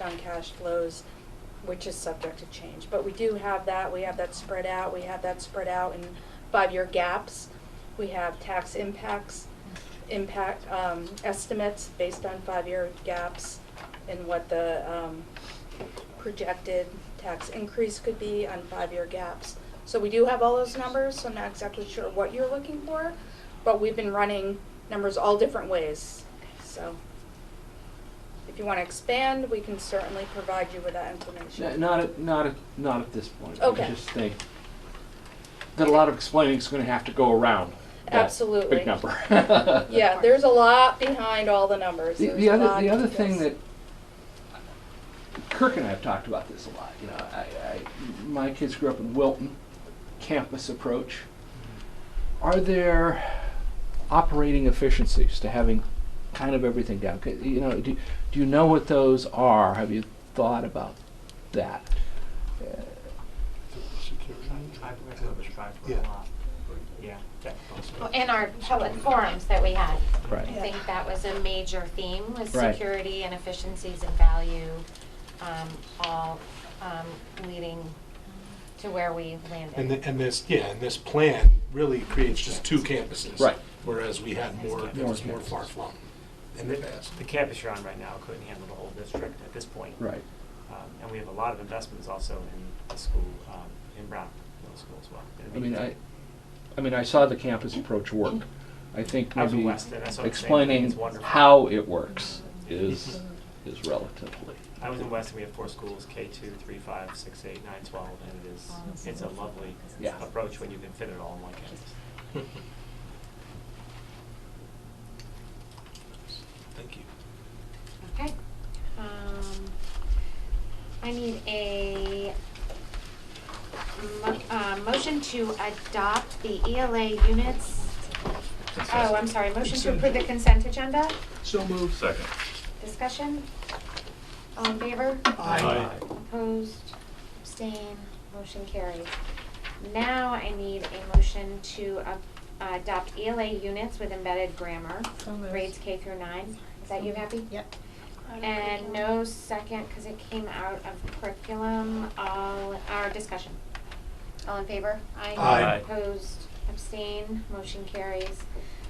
on cash flows, which is subject to change. But we do have that, we have that spread out, we have that spread out in five-year gaps. We have tax impacts, impact, um, estimates based on five-year gaps and what the, um, projected tax increase could be on five-year gaps. So we do have all those numbers, so I'm not exactly sure what you're looking for, but we've been running numbers all different ways, so. If you want to expand, we can certainly provide you with that No, information. Not at, not at, not at this point. Okay. I just think that a lot of explaining is gonna have to go around that Absolutely. big number. Yeah, there's a lot behind all the numbers. The, There's the a other, lot- the other thing yes. that Kirk and I have talked about this a lot, you know, I, I, my kids grew up in Wilton, campus approach. Are there operating efficiencies to having kind of everything down? C- You know, do, do you know what those are? Have you thought about that? Security. Tribe, we're gonna go with tribe for a Yeah. lot. Yeah, that's possible. Well, in our public forums that we had, I Right. think that was a major theme, was Right. security and efficiencies and value, um, all, um, leading to where we And, landed. the- and this, yeah, and this plan really creates just two campuses. Right. Whereas we had more, it was more campuses. far flung in the past. The campus you're on right now couldn't handle the whole district at this point. Right. Um, And we have a lot of investments also in the school, um, in Brown Middle School as well. I mean, I, I mean, I saw the campus approach work. I think I was in maybe Weston, that's what I'm saying, explaining it's wonderful. how it works is, is relatively. I was in Weston, we have four schools, K two, three, five, six, eight, nine, twelve, and it is, it's a lovely Yeah. approach when you can fit it all in one campus. Thank you. Okay. Um, I need a mo- uh, motion to adopt the ELA units. Oh, I'm sorry, motion to approve the consent agenda, So moved. Second. discussion? All in favor? Aye. Opposed, abstain, motion carried. Now I need a motion to up- uh, adopt ELA units with embedded grammar, grades K through nine. Is that you happy? Yep. And no second, because it came out of curriculum, all, our discussion. All in favor? Aye. Aye. Opposed, abstain, motion carries.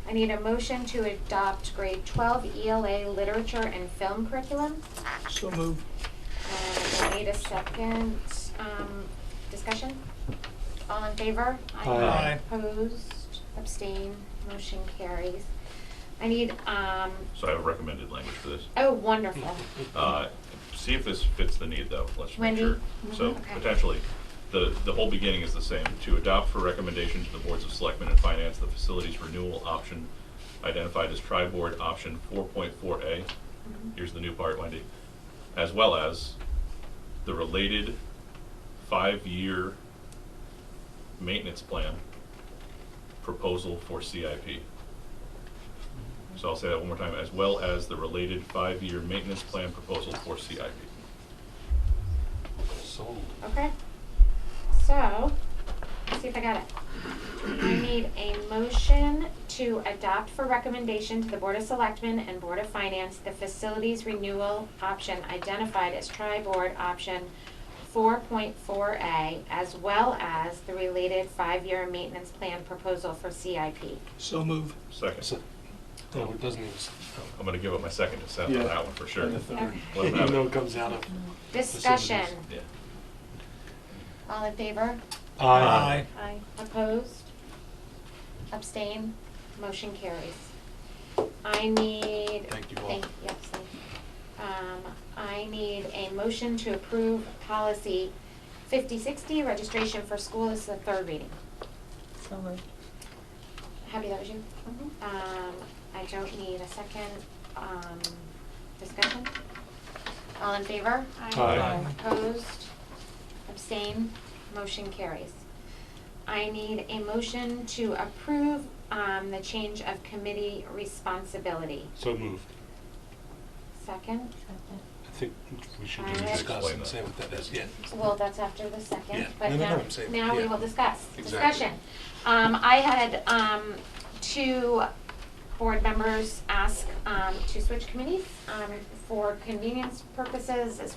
I need a motion to adopt grade twelve ELA literature and film curriculum. So moved. And I need Uh, a second, um, discussion? All in favor? Aye. Opposed, abstain, motion carries. I need, um, So I have a recommended language for this. oh, wonderful. Uh, See if this fits the need, though. Let's make Wendy? sure. So Mhm. Okay. potentially, the, the whole beginning is the same. To adopt for recommendation to the boards of selectmen and finance the facilities renewal option identified as tri-board option 4.4A. Here's the new part, Wendy. As well as the related five-year maintenance plan proposal for CIP. So I'll say that one more time, as well as the related five-year maintenance plan proposal for CIP. Sold. Okay, so, let's see if I got it. I need a motion to adopt for recommendation to the Board of Selectmen and Board of Finance the facilities renewal option identified as tri-board option four point four A, as well as the related five-year maintenance plan proposal for CIP. So moved. Second, No, it doesn't even, s- I'm gonna give up my second to Seth on Yeah. that one for sure. And the third. Okay. What even about though it? it comes out of. Discussion, Yeah. all in favor? Aye. Aye. Opposed? Abstain? Motion carries. I need. Thank you all. Thank, yes, thank you. Um, I need a motion to approve policy fifty sixty, registration for school, this is the third reading. Happy that was you? Um, I don't need a second, um, discussion. All in favor? Aye. Aye. Opposed? Abstain? Motion carries. I need a motion to approve, um, the change of committee responsibility. So moved. Second? I think we should Alright. discuss Explain and that. say what that is, yeah. Well, that's after the Yeah. second, but No, no, now, no, I'm saying- now we yeah. will discuss, Exactly. discussion. Um, I had, um, two board members ask, um, to switch committees, um, for convenience purposes as